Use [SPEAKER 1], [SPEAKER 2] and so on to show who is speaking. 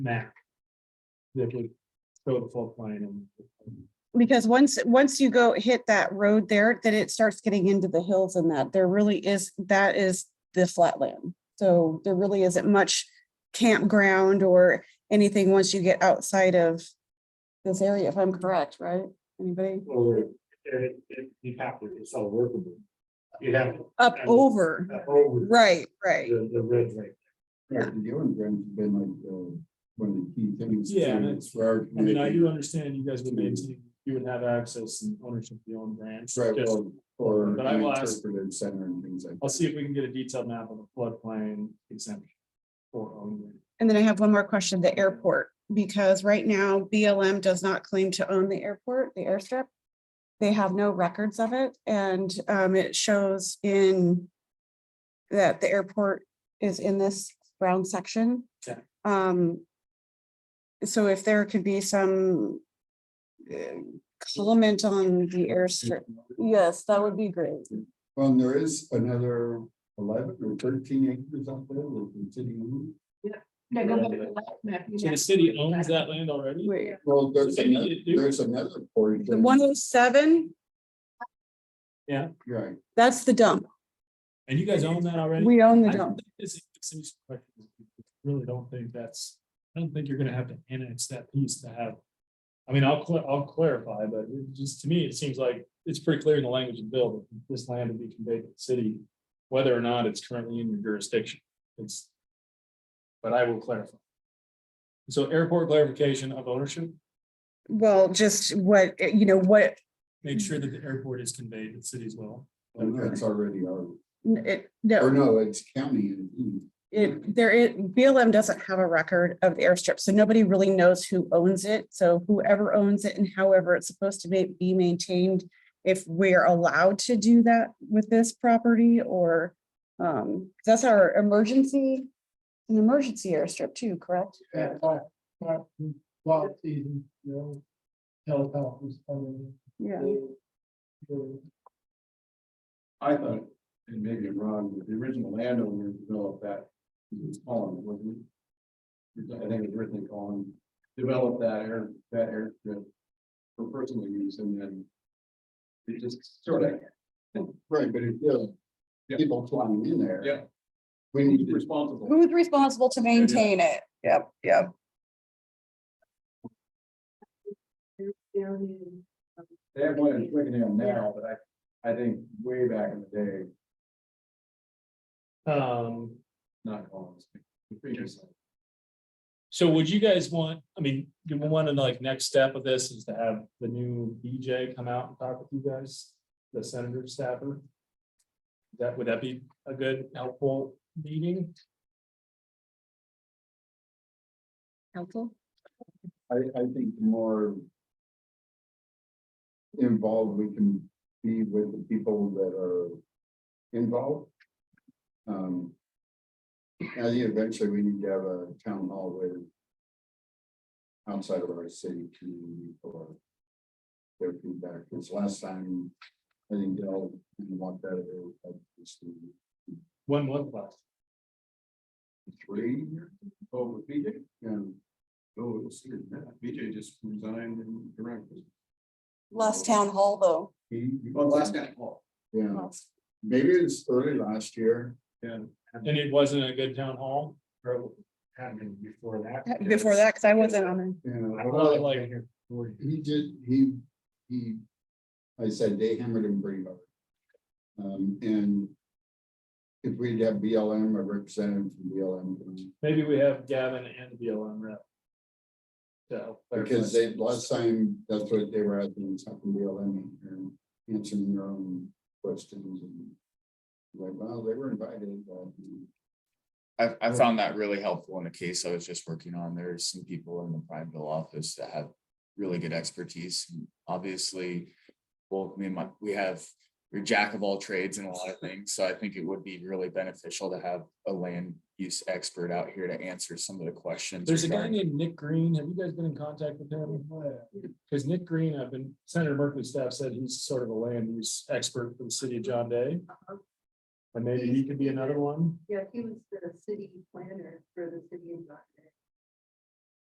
[SPEAKER 1] map. That would show the flood plain and.
[SPEAKER 2] Because once, once you go hit that road there, then it starts getting into the hills and that there really is, that is the flatland. So there really isn't much campground or anything once you get outside of this area, if I'm correct, right? Anybody?
[SPEAKER 1] Or it, it, you have to, it's all workable. You have to
[SPEAKER 2] Up
[SPEAKER 1] Yeah.
[SPEAKER 2] over,
[SPEAKER 1] uh, over
[SPEAKER 2] right, right.
[SPEAKER 1] the, the red right.
[SPEAKER 3] Yeah, the Ewing Grant's been like, uh, one of the key things.
[SPEAKER 1] Yeah, and
[SPEAKER 3] to-
[SPEAKER 1] it's-
[SPEAKER 3] For our
[SPEAKER 1] I mean, I
[SPEAKER 3] community.
[SPEAKER 1] do understand you guys would maintain, you would have access and ownership of your own branch.
[SPEAKER 3] Right,
[SPEAKER 1] Just-
[SPEAKER 3] well, For
[SPEAKER 1] But I will
[SPEAKER 3] the
[SPEAKER 1] ask-
[SPEAKER 3] interpretive center and things like.
[SPEAKER 1] I'll see if we can get a detailed map of the floodplain exemption. For own.
[SPEAKER 2] And then I have one more question, the airport, because right now BLM does not claim to own the airport, the airstrip. They have no records of it and um, it shows in that the airport is in this brown section.
[SPEAKER 1] Yeah.
[SPEAKER 2] Um, so if there could be some um, comment on the airstrip, yes, that would be great.
[SPEAKER 3] Um, there is another eleven or thirteen acres out there with the city. owned.
[SPEAKER 4] They go back to the last map you
[SPEAKER 1] So the
[SPEAKER 4] have.
[SPEAKER 1] city owns that land already?
[SPEAKER 2] Wait,
[SPEAKER 3] Well, there's,
[SPEAKER 1] So maybe
[SPEAKER 3] another-
[SPEAKER 1] you do-
[SPEAKER 3] there's another
[SPEAKER 2] the
[SPEAKER 3] portion.
[SPEAKER 2] one oh seven,
[SPEAKER 3] Right,
[SPEAKER 2] that's the dump.
[SPEAKER 1] And you guys own that already?
[SPEAKER 2] We own the
[SPEAKER 1] I
[SPEAKER 2] dump.
[SPEAKER 1] don't think this is- this is correct. Really don't think that's, I don't think you're gonna have to annex that piece to have. I mean, I'll, cla- I'll clarify, but it just to me, it seems like it's pretty clear in the language of the bill that this land would be conveyed to the city. Whether or not it's currently in your jurisdiction, it's. But I will clarify. So airport clarification of ownership,
[SPEAKER 2] Well, just what, you know, what
[SPEAKER 1] make sure that the airport is conveyed to the city as well.
[SPEAKER 3] and that's already our,
[SPEAKER 2] N- It,
[SPEAKER 3] or
[SPEAKER 2] no,
[SPEAKER 3] no, it's county. and hmm. Ewing.
[SPEAKER 2] it, there, is- BLM doesn't have a record of the airstrip, so nobody really knows who owns it. So whoever owns it and however it's supposed to be, be maintained, if we're allowed to do that with this property or, um, that's our emergency, an emergency airstrip too, correct?
[SPEAKER 5] Yeah, but, but, well, season, you know, telltale who's coming.
[SPEAKER 2] Yeah.
[SPEAKER 3] I thought, and maybe I'm wrong, but the original landowner developed that, it was Colin, wasn't it? I think it was originally Colin, developed that air, that airstrip for personal use and then it just sort of. Right, but it does, people flying in there. Yeah. We need to. Responsible.
[SPEAKER 2] Who's responsible to maintain it? Yep, yep.
[SPEAKER 3] They have one in Twickenham now, but I, I think way back in the day,
[SPEAKER 1] Um,
[SPEAKER 3] not Colin's. the previous one.
[SPEAKER 1] So would you guys want, I mean, do we want to like next step of this is to have the new BJ come out and talk with you guys, the senator staffer? That, would that be a good helpful meeting?
[SPEAKER 2] Helpful.
[SPEAKER 3] I, I think the more involved we can be with the people that are involved. Um, I think eventually we need to have a town hall with outside of our city community for their feedback, because last time, I think they all didn't want that. they were like, this is
[SPEAKER 1] When was last?
[SPEAKER 3] Three years Oh, over BJ, and, oh, it's, BJ just resigned and directed.
[SPEAKER 2] Last town Oh. hall though.
[SPEAKER 1] Oh,
[SPEAKER 3] Well, last night. Yeah, maybe it's early last year.
[SPEAKER 1] And it wasn't a good town hall? Or
[SPEAKER 5] Happened before that.
[SPEAKER 2] Before that, because I wasn't on it.
[SPEAKER 3] Yeah,
[SPEAKER 1] I
[SPEAKER 3] well,
[SPEAKER 1] really like here.
[SPEAKER 3] he did, he, he, I said they hammered him pretty hard. Um, and if we'd have BLM, a representative from BLM,
[SPEAKER 1] Maybe we have Gavin and the BLM rep. to help clarify.
[SPEAKER 3] because they, last time, that's what they were asking, something BLM, and answering their own questions and like, well, they were invited, but
[SPEAKER 6] I, I found that really helpful in a case I was just working on. There's some people in the Prineville office that have really good expertise. And Obviously, well, me and my, we have, we're jack of all trades in a lot of things. So I think it would be really beneficial to have a land use expert out here to answer some of the questions.
[SPEAKER 1] There's a guy
[SPEAKER 6] regarding-
[SPEAKER 1] named Nick Green. Have you guys been in contact with him? Because Nick Green, I've been, Senator Merkley's staff said he's sort of a land use expert for the city of John Day. And maybe he could be another one.
[SPEAKER 4] Yeah, he was the city planner for the city of Rockland.